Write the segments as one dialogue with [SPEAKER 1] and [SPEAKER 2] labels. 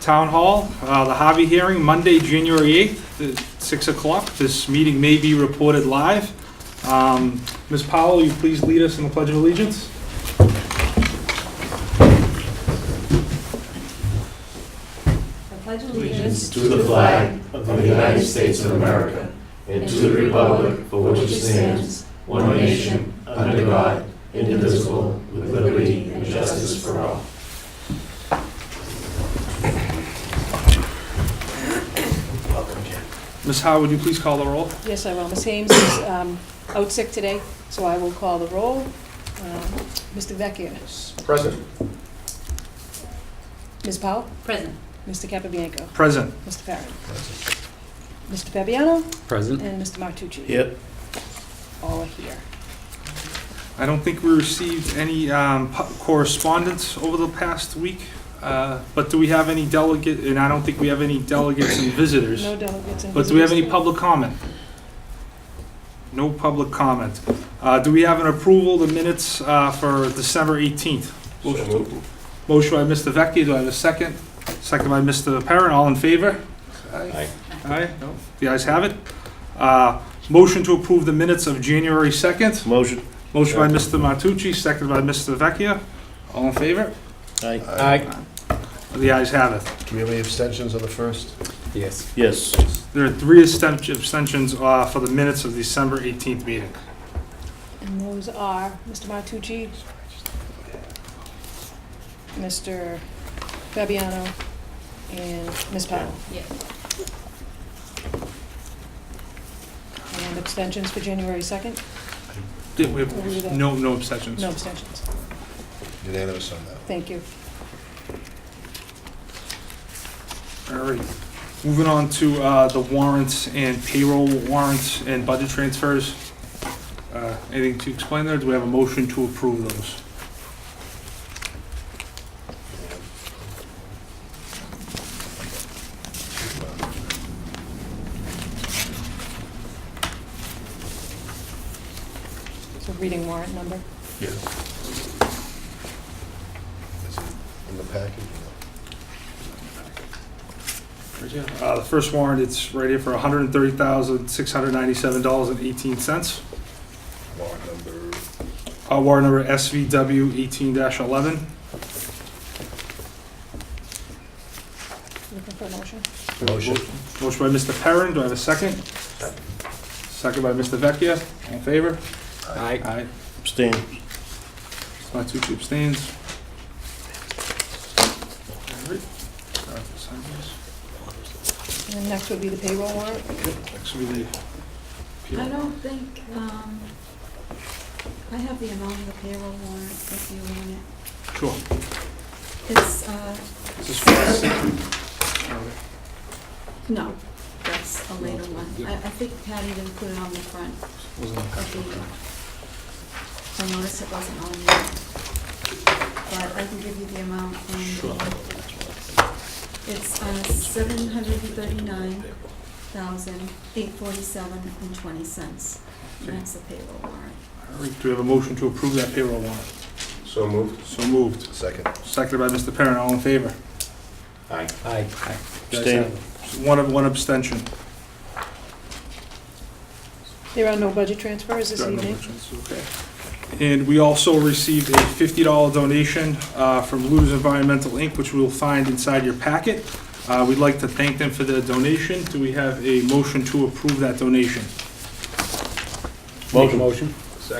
[SPEAKER 1] Town Hall, uh, the Harvey hearing, Monday, January 8th, uh, 6 o'clock. This meeting may be reported live. Um, Ms. Powell, will you please lead us in the Pledge of Allegiance?
[SPEAKER 2] I pledge allegiance
[SPEAKER 3] to the flag of the United States of America and to the republic for which it stands, one nation, under God, indivisible, with liberty and justice for all.
[SPEAKER 1] Ms. Howe, would you please call the roll?
[SPEAKER 2] Yes, I will. Ms. Hames is um, out sick today, so I will call the roll. Um, Mr. Vecchia?
[SPEAKER 4] Present.
[SPEAKER 2] Ms. Powell?
[SPEAKER 5] Present.
[SPEAKER 2] Mr. Capabianco?
[SPEAKER 1] Present.
[SPEAKER 2] Mr. Perrin? Mr. Fabiano?
[SPEAKER 6] Present.
[SPEAKER 2] And Mr. Martucci?
[SPEAKER 3] Yep.
[SPEAKER 2] All are here.
[SPEAKER 1] I don't think we received any um, pu- correspondence over the past week, uh, but do we have any delegate, and I don't think we have any delegates and visitors.
[SPEAKER 2] No delegates and visitors.
[SPEAKER 1] But do we have any public comment? No public comment. Uh, Do we have an approval of the minutes uh, for December 18th? Motion by Mr. Vecchia, do I have a second? Second by Mr. Perrin, all in favor?
[SPEAKER 3] Aye.
[SPEAKER 1] Aye, no, the ayes have it. Uh, Motion to approve the minutes of January 2nd.
[SPEAKER 3] Motion.
[SPEAKER 1] Motion by Mr. Martucci, second by Mr. Vecchia, all in favor?
[SPEAKER 3] Aye.
[SPEAKER 1] The ayes have it.
[SPEAKER 4] Do we have any abstentions on the first?
[SPEAKER 6] Yes.
[SPEAKER 3] Yes.
[SPEAKER 1] There are three absten- abstentions uh, for the minutes of December 18th meeting.
[SPEAKER 2] And those are Mr. Martucci, Mr. Fabiano, and Ms. Powell.
[SPEAKER 5] Yes.
[SPEAKER 2] And abstentions for January 2nd?
[SPEAKER 1] Did we have, no, no abstentions.
[SPEAKER 2] No abstentions.
[SPEAKER 4] Unanimous on that.
[SPEAKER 2] Thank you.
[SPEAKER 1] All right. Moving on to uh, the warrants and payroll warrants and budget transfers. Uh, Anything to explain there? Do we have a motion to approve those?
[SPEAKER 2] So reading warrant number.
[SPEAKER 4] Yeah. Is it In the packet?
[SPEAKER 1] Uh, The first warrant, it's right here for $130,697.18.
[SPEAKER 4] Warrant number,
[SPEAKER 1] Uh, Warrant number SVW 18-11.
[SPEAKER 2] Looking for a motion?
[SPEAKER 4] motion.
[SPEAKER 1] Motion by Mr. Perrin, do I have a second? Second by Mr. Vecchia, all in favor?
[SPEAKER 6] Aye.
[SPEAKER 1] Aye.
[SPEAKER 3] Abstain.
[SPEAKER 1] Matucci abstains. All right. Uh, sign this.
[SPEAKER 2] And next would be the payroll warrant.
[SPEAKER 1] Next will be the
[SPEAKER 7] I
[SPEAKER 1] appeal.
[SPEAKER 7] don't think, um, I have the amount of the payroll warrant if you want it.
[SPEAKER 1] Sure.
[SPEAKER 7] It's, uh,
[SPEAKER 1] This is for the second.
[SPEAKER 7] no, that's a later one. I, I think Patty didn't put it on the front
[SPEAKER 1] Wasn't on
[SPEAKER 7] of the, I noticed it wasn't on there. But I can give you the amount and it's, uh, seven hundred and thirty-nine thousand, eight forty-seven and twenty cents. And that's the payroll warrant.
[SPEAKER 1] All right, do we have a motion to approve that payroll warrant?
[SPEAKER 4] So moved.
[SPEAKER 1] So moved.
[SPEAKER 4] Second.
[SPEAKER 1] Seconded by Mr. Perrin, all in favor?
[SPEAKER 3] Aye.
[SPEAKER 6] Aye.
[SPEAKER 1] The ayes have it. One of, one abstention.
[SPEAKER 2] There are no budget transfers this
[SPEAKER 1] Got no
[SPEAKER 2] evening.
[SPEAKER 1] objections, Okay. And we also received a $50 donation uh, from Lou's Environmental Inc., which we'll find inside your packet. Uh, We'd like to thank them for their donation. Do we have a motion to approve that donation?
[SPEAKER 6] Motion.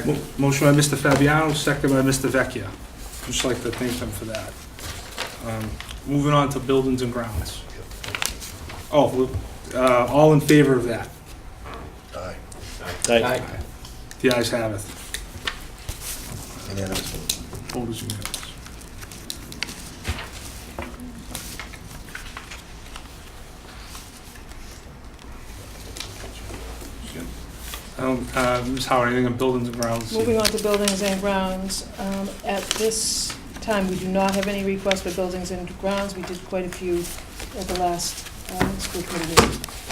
[SPEAKER 1] Mo- Motion by Mr. Fabiano, second by Mr. Vecchia. Just like to thank them for that. Um, Moving on to buildings and grounds. Oh, uh, all in favor of that?
[SPEAKER 4] Aye.
[SPEAKER 3] Aye.
[SPEAKER 1] The ayes have it.
[SPEAKER 4] Unanimous.
[SPEAKER 1] Vote is unanimous. Um, uh, Ms. Howard, anything on buildings and grounds?
[SPEAKER 2] Moving on to buildings and grounds. Um, At this time, we do not have any requests for buildings and grounds. We did quite a few at the last um, school committee meeting.